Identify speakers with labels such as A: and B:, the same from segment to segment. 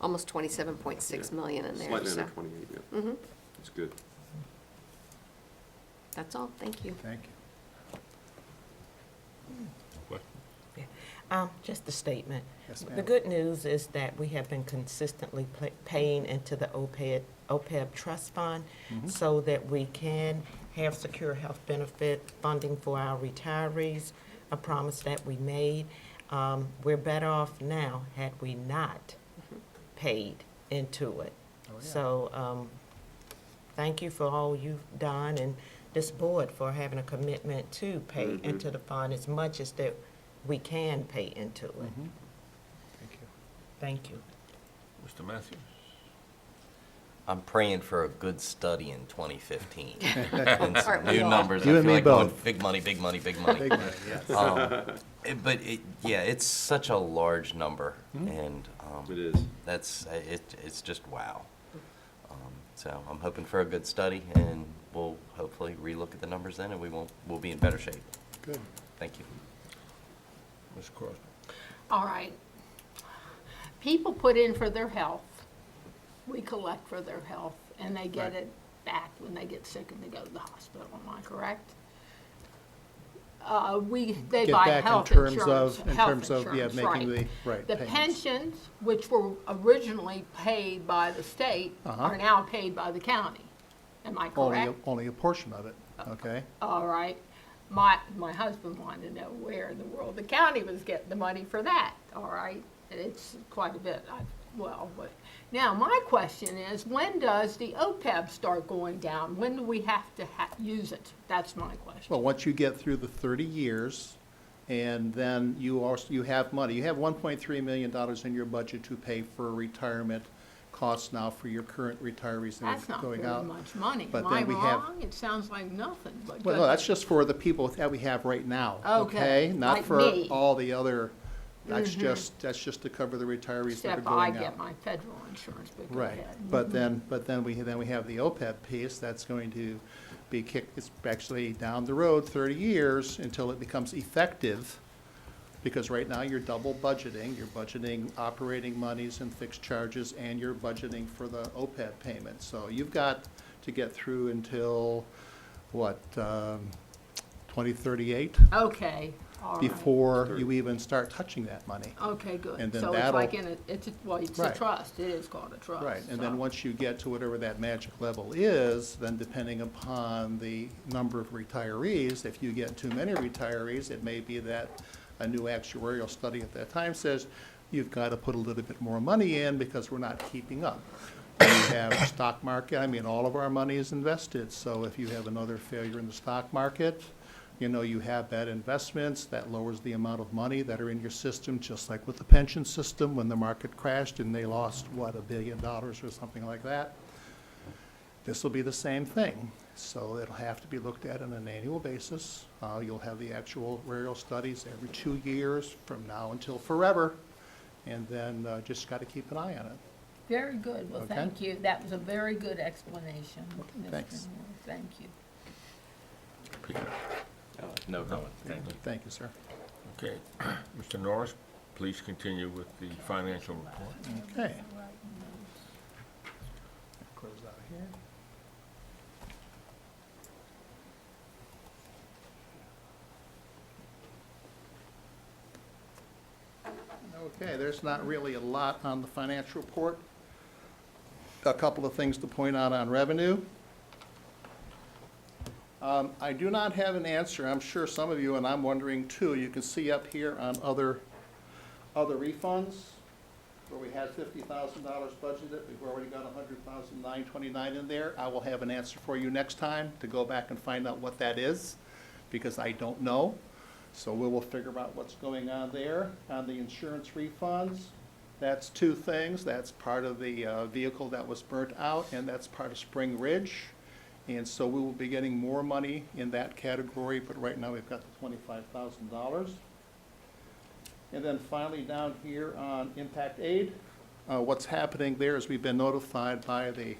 A: almost twenty-seven point six
B: Yeah.
A: million in there,
B: Slightly
A: so.
B: under twenty-eight, yeah,
A: hmm
B: it's good.
A: that's all, thank you.
C: Thank you.
D: Um, Just a statement.
C: Yes,
D: The
C: ma'am.
D: good news is that we have been consistently pla- paying into the E OPEB, OPEB trust fund
C: Mhm.
D: so that we can have secure health benefit funding for our retirees, a promise that we made. Um, We're better off now had we not paid into it.
C: Oh, yeah.
D: So um, thank you for all you've done and this board for having a commitment to pay
B: Mhm.
D: into the fund as much as that we can pay into it.
C: Mhm. Thank you.
D: Thank you.
E: Mr. Matthews?
F: I'm praying for a good study in 2015. And
A: Aren't
F: some
A: we
F: new
A: all?
F: numbers. I
C: You and
F: feel
C: me
F: like going
C: both.
F: Big money, big money, big money.
C: Big money, yes.
F: Um, it- But it, yeah, it's such a large number
C: Hmm?
F: and. um,
B: It is.
F: That's, uh, it, it's just wow.
A: Hmm.
F: Um, So I'm hoping for a good study and we'll hopefully relook at the numbers then and we won't, we'll be in better shape.
C: Good.
F: Thank you.
E: Ms. Crosby?
G: All right. People put in for their health. We collect for their health, and they get
C: Right.
G: it back when they get sick and they go to the hospital. Am I correct? Uh, we, they
C: Get
G: buy
C: back in
G: health
C: terms
G: insurance.
C: of- in
G: health
C: terms of, yeah,
G: insurance,
C: making the- right,
G: The
C: payments.
G: pensions, which were originally paid by the state,
C: Uh-huh.
G: are now paid by the county. Am I
C: Only,
G: correct?
C: a- only a portion of it, okay?
G: All right. My, my husband wanted to know where in the world the county was getting the money for that, all right? And It's quite a bit, I, well, but, now, my question is, when does the OPEB start going down? When do we have to ha, use it? That's my question.
C: Well, once you get through the 30 years, and then you also, you have money. You have $1.3 million in your budget to pay for retirement costs now for your current retirees that
G: That's
C: are
G: not
C: going
G: very
C: out.
G: much money.
C: but
G: Am I
C: then we have-
G: wrong? It sounds like nothing, but.
C: Well, no, that's just for the people that we have right now,
G: Okay,
C: okay? Not
G: like
C: for
G: me.
C: all the other, that's just, that's just to cover the retirees that are
G: Except
C: going out.
G: I get my federal insurance, but go
C: Right,
G: ahead.
C: but then, but then we, then we have the OPEB piece, that's going to be kicked, it's actually down the road thirty years until it becomes effective, because right now you're double budgeting, you're budgeting operating monies and fixed charges, and you're budgeting for the OPEB payment, so you've got to get through until, what, um, twenty thirty-eight?
G: Okay, all right.
C: Before you even start touching that money.
G: Okay, good.
C: And then
G: So it's like in
C: that'll-
G: a, it's, a- well, it's a
C: Right.
G: trust. It is called a trust.
C: Right, and
G: so-
C: then once you get to whatever that magic level is, then depending upon the number of retirees, if you get too many retirees, it may be that a new actuarial study at that time says, you've got to put a little bit more money in because we're not keeping up. We have stock market, I mean, all of our money is invested, so if you have another failure in the stock market, you know, you have bad investments, that lowers the amount of money that are in your system, just like with the pension system, when the market crashed and they lost, what, a billion dollars or something like that? This will be the same thing. So it'll have to be looked at on an annual basis. Uh, you'll have the actual aerial studies every two years from now until forever. And then, uh, just gotta keep an eye on it.
G: Very good, well,
C: Okay.
G: thank you, that was a very good explanation. Mr.
C: Thanks.
G: Moore. Thank you.
F: No comment.
C: Thank you, sir.
E: Okay. Mr. Norris, please continue with the financial report.
C: Okay. Close out of here. Okay, there's not really a lot on the financial report. A couple of things to point out on revenue. Um, I do not have an answer, I'm sure some of you, and I'm wondering too, you can see up here on other, other refunds where we had fifty thousand dollars budgeted, we've already got a hundred thousand nine twenty-nine in there. I will have an answer for you next time to go back and find out what that is, because I don't know. So we will figure out what's going on there. On the insurance refunds, that's two things. That's part of the uh, vehicle that was burnt out, and that's part of Spring Ridge. And so we will be getting more money in that category, but right now we've got the twenty-five thousand dollars. And then finally, down here on impact aid, uh, what's happening there is we've been notified by the,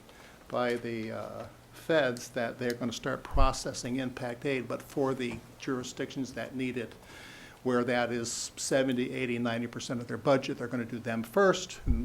C: by the uh, feds that they're going to start processing impact aid, but for the jurisdictions that need it, where that is 70, 80, 90 percent of their budget, they're going to do them first, and